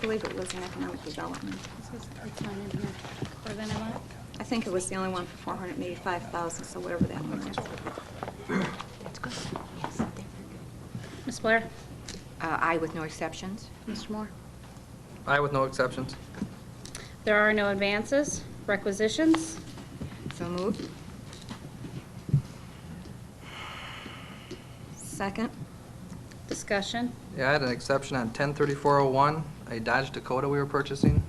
believe it was in economic development. This is- It's not in here. Or then I want, I think it was the only one for 485,000, so whatever that one is. Ms. Blair? Uh, Aye with no exceptions. Mr. Moore? Aye with no exceptions. There are no advances, requisitions. So moved. Second, Discussion. Yeah, I had an exception on 103401, a Dodge Dakota we were purchasing.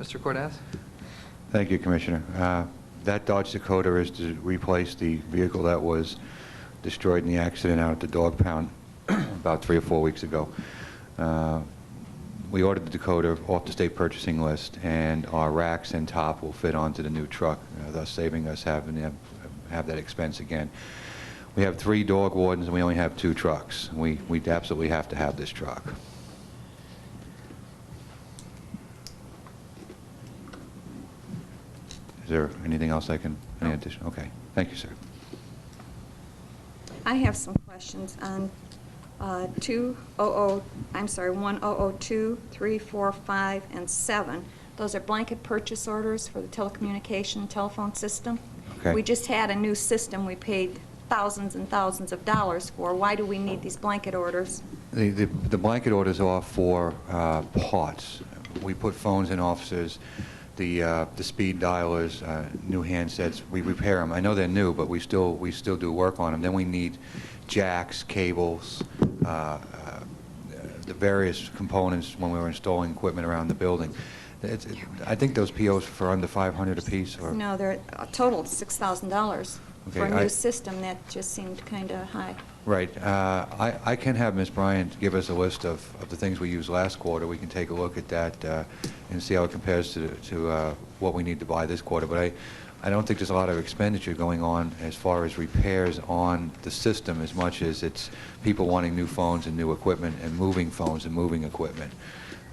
Mr. Cordez? Thank you, Commissioner. Uh, That Dodge Dakota is to replace the vehicle that was destroyed in the accident out at the dog pound about three or four weeks ago. Uh, We ordered the Dakota off the state purchasing list, and our racks and top will fit onto the new truck, uh, thus saving us having to have- have that expense again. We have three dog wardens, and we only have two trucks. We we absolutely have to have this truck. Is there anything else I can, any addition? Okay, thank you, sir. I have some questions on uh, 200, I'm sorry, 1002, 3, 4, 5, and 7. Those are blanket purchase orders for the telecommunication telephone system. Okay. We just had a new system we paid thousands and thousands of dollars for. Why do we need these blanket orders? The- The the blanket orders are for uh, parts. We put phones in offices, the uh, the speed dialers, uh, new handsets, we repair them. I know they're new, but we still, we still do work on them. Then we need jacks, cables, uh, uh, the various components when we were installing equipment around the building. It's- it- I think those POs for under 500 apiece or... No, they're a total of $6,000 for Okay, a I- new system. That just seemed kind of high. Right. Uh, I I can have Ms. Bryant give us a list of of the things we used last quarter. We can take a look at that uh, and see how it compares to to uh, what we need to buy this quarter. But I I don't think there's a lot of expenditure going on as far as repairs on the system as much as it's people wanting new phones and new equipment and moving phones and moving equipment.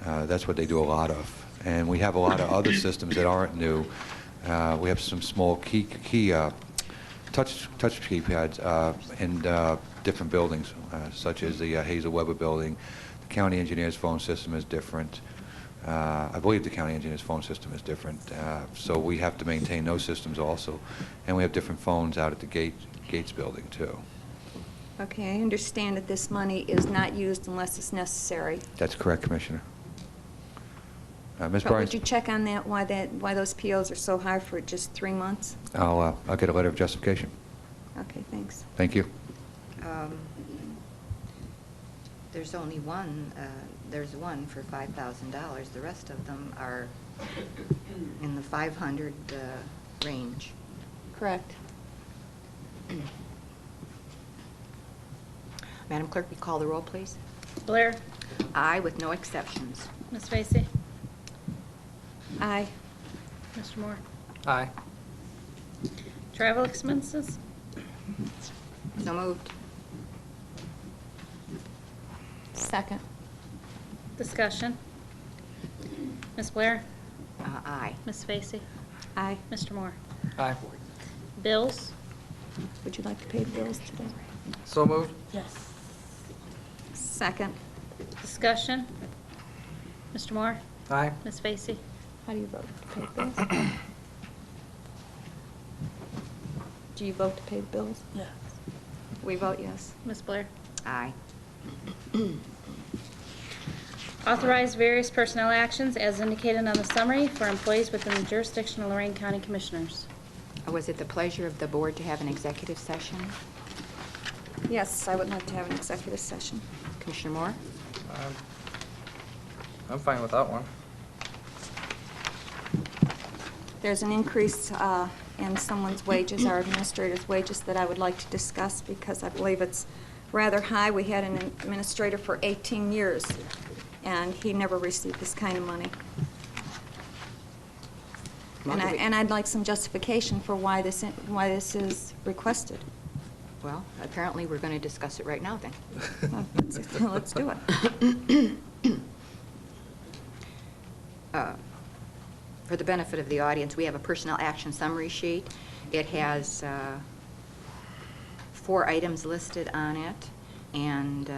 Uh, That's what they do a lot of. And we have a lot of other systems that aren't new. Uh, We have some small key key uh, touch touch keypads uh, in uh, different buildings, uh, such as the uh, Hazel Weber building. The county engineer's phone system is different. Uh, I believe the county engineer's phone system is different, uh, so we have to maintain those systems also. And we have different phones out at the Gate, Gates building too. Okay, I understand that this money is not used unless it's necessary. That's correct, Commissioner. Uh, Ms. But would Bryant? you check on that, why that, why those POs are so high for just three months? I'll, uh, I'll get a letter of justification. Okay, thanks. Thank you. Um, There's only one, uh, there's one for $5,000. The rest of them are in the 500 uh, range. Correct. Madam Clerk, we call the roll, please. Blair? Aye with no exceptions. Ms. Vacy? Aye. Mr. Moore? Aye. Travel expenses? So moved. Second. Discussion. Ms. Blair? Uh, Aye. Ms. Vacy? Aye. Mr. Moore? Aye. Bills? Would you like to pay the bills today? So moved. Yes. Second. Discussion. Mr. Moore? Aye. Ms. Vacy? How do you vote to pay the bills? Do you vote to pay the bills? Yes. We vote yes. Ms. Blair? Aye. Authorize various personnel actions as indicated on the summary for employees within the jurisdiction of Lorraine County Commissioners. Uh, Was it the pleasure of the board to have an executive session? Yes, I would like to have an executive session. Commissioner Moore? Um, I'm fine without one. There's an increase uh, in someone's wages, our administrator's wages, that I would like to discuss because I believe it's rather high. We had an administrator for 18 years, and he never received this kind of money. And I, and I'd like some justification for why this, why this is requested. Well, apparently, we're going to discuss it right now, then. Let's do it. Uh, For the benefit of the audience, we have a personnel action summary sheet. It has uh, four items listed on it, and uh,